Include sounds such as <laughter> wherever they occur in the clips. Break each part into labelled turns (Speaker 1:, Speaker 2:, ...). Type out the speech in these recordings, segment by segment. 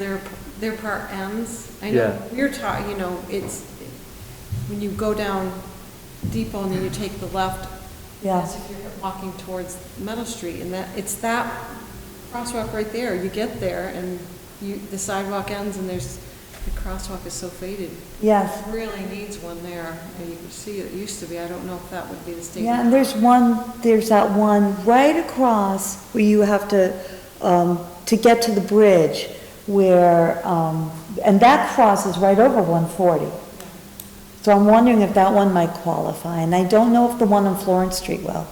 Speaker 1: They're, they're part Ms. I
Speaker 2: Yeah.
Speaker 1: know, we're taught, you know, it's, when you go down Depot and then you take the left,
Speaker 3: Yeah.
Speaker 1: as if you're walking towards Meadow Street, and that, it's that crosswalk right there. You get there and you, the sidewalk ends and there's, the crosswalk is so faded.
Speaker 3: Yes.
Speaker 1: Really needs one there, and you can see it used to be, I don't know if that would be the state.
Speaker 3: Yeah, and there's one, there's that one right across where you have to, um, to get to the bridge where, um, and that crosses right over 140. So I'm wondering if that one might qualify, and I don't know if the one on Florence Street will.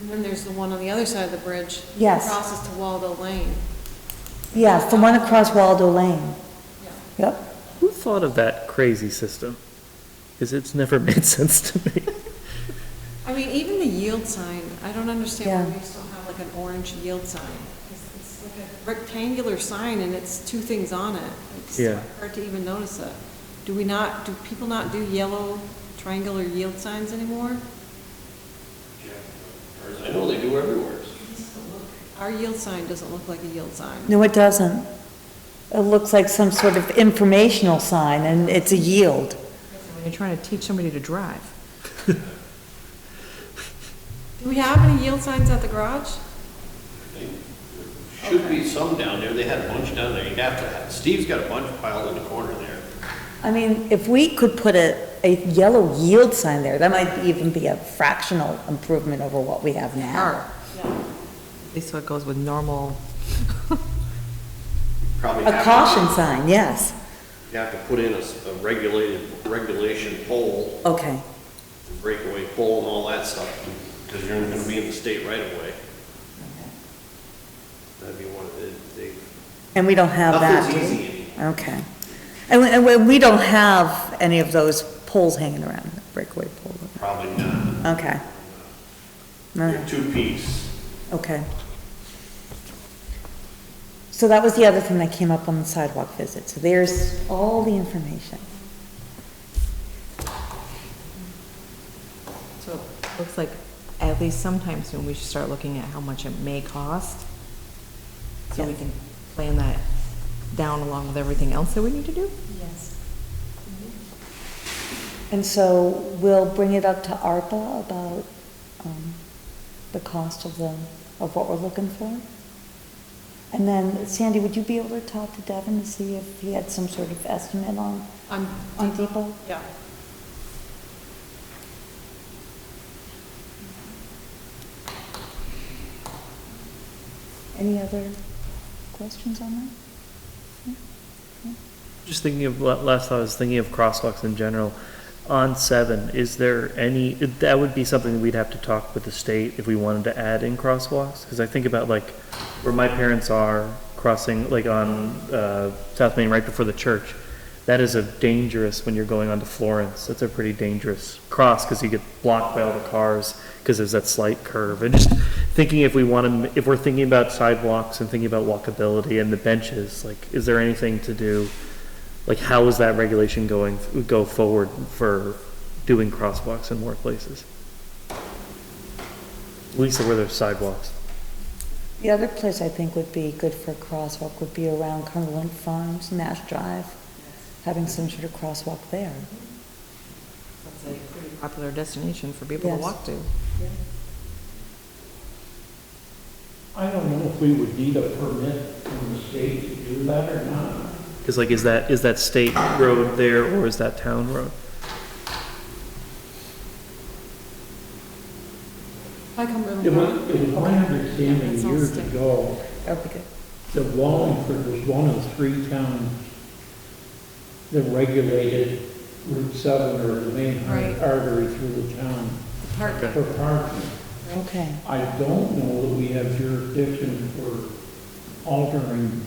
Speaker 1: And then there's the one on the other side of the bridge. that
Speaker 3: Yes.
Speaker 1: Crosses to Waldo Lane.
Speaker 3: Yes, the one across Waldo Lane. Yep.
Speaker 2: Who thought of that crazy system? Because it's never <laughs> made sense to me.
Speaker 1: I mean, even the yield sign, I don't understand why
Speaker 3: Yeah.
Speaker 1: we still have like an orange yield sign. It's- It's like a rectangular sign and it's two things on it. It's
Speaker 2: Yeah.
Speaker 1: Hard to even notice it. Do we not, do people not do yellow triangular yield signs anymore?
Speaker 4: I know they do everywhere.
Speaker 1: Our yield sign doesn't look like a yield sign.
Speaker 3: No, it doesn't. It looks like some sort of informational sign, and it's a yield.
Speaker 5: When you're trying to teach somebody to drive.
Speaker 1: Do we have any yield signs at the garage?
Speaker 4: Should be some down there, they had a bunch down there, you'd have to have, Steve's got a bunch piled in the corner there.
Speaker 3: I mean, if we could put a, a yellow yield sign there, that might even be a fractional improvement over what we have now.
Speaker 5: At least so it goes with normal.
Speaker 4: Probably
Speaker 3: A
Speaker 4: have to-
Speaker 3: caution sign, yes.
Speaker 4: You have to put in a, s- a regulated, regulation pole,
Speaker 3: Okay,
Speaker 4: breakaway pole and all that stuff, because you're gonna be in the state right away. That'd be one of the, they,
Speaker 3: and we don't have that.
Speaker 4: nothing's
Speaker 3: do we?
Speaker 4: easy anymore.
Speaker 3: Okay. And, we- and we- we don't have any of those poles hanging around, breakaway pole.
Speaker 4: Probably not.
Speaker 3: Okay. All right.
Speaker 4: They're two-piece.
Speaker 3: Okay. So that was the other thing that came up on the sidewalk visit, so there's all the information.
Speaker 5: So it looks like at least sometime soon, we should start looking at how much it may cost. So we
Speaker 3: Yes.
Speaker 5: can plan that down along with everything else that we need to do.
Speaker 1: Yes. Mm-hmm.
Speaker 3: And so we'll bring it up to ARPA about, um, the cost of the, of what we're looking for. And then Sandy, would you be able to talk to Devin to see if he had some sort of estimate on,
Speaker 1: On,
Speaker 3: on Depot?
Speaker 1: yeah.
Speaker 3: Any other questions on that?
Speaker 2: Just thinking of, la- last I was thinking of crosswalks in general. On seven, is there any, that would be something we'd have to talk with the state if we wanted to add in crosswalks? Because I think about like where my parents are crossing, like on, uh, South Main right before the church. That is a dangerous, when you're going onto Florence, that's a pretty dangerous cross because you get blocked by all the cars because there's that slight curve. And just thinking if we want to, if we're thinking about sidewalks and thinking about walkability and the benches, like, is there anything to do? like how is that regulation going go forward for doing crosswalks in more places? Lisa, where there's sidewalks.
Speaker 3: The other place I think would be good for a crosswalk would be around Cumberland Farms, Nash Drive, having some sort of crosswalk there.
Speaker 5: That's a pretty popular destination for people to
Speaker 3: Yes.
Speaker 5: walk to.
Speaker 6: I don't know if we would need a permit from the state to do that or not.
Speaker 2: Because like, is that, is that state road there or is that town road?
Speaker 1: I come really
Speaker 6: It
Speaker 1: well.
Speaker 6: was, it was my understanding
Speaker 1: That's all
Speaker 6: years
Speaker 1: state.
Speaker 6: ago
Speaker 3: That would be good.
Speaker 6: that Wallingford was one of three towns that regulated Route 7 or the main
Speaker 1: Right.
Speaker 6: artery through the town
Speaker 1: Park-
Speaker 2: Okay.
Speaker 6: for parking.
Speaker 3: Okay,
Speaker 6: I don't know that we have jurisdiction for altering,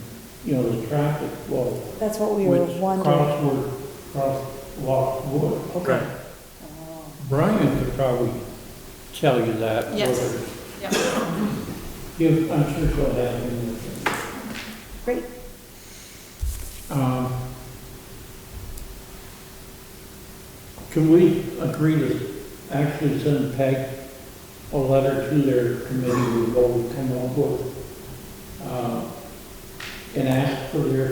Speaker 6: you know, the traffic flow.
Speaker 3: that's what we were
Speaker 6: Which
Speaker 3: wondering.
Speaker 6: crossword, crosswalk would.
Speaker 2: Okay.
Speaker 6: Brian Oh. could probably tell you that.
Speaker 1: Yes.
Speaker 6: whether-
Speaker 1: Yeah.
Speaker 6: Give, I'm sure she'll have him.
Speaker 3: Great.
Speaker 6: Um, Can we agree to actually send Peg a letter to their committee, we'll come up with, uh, and ask for their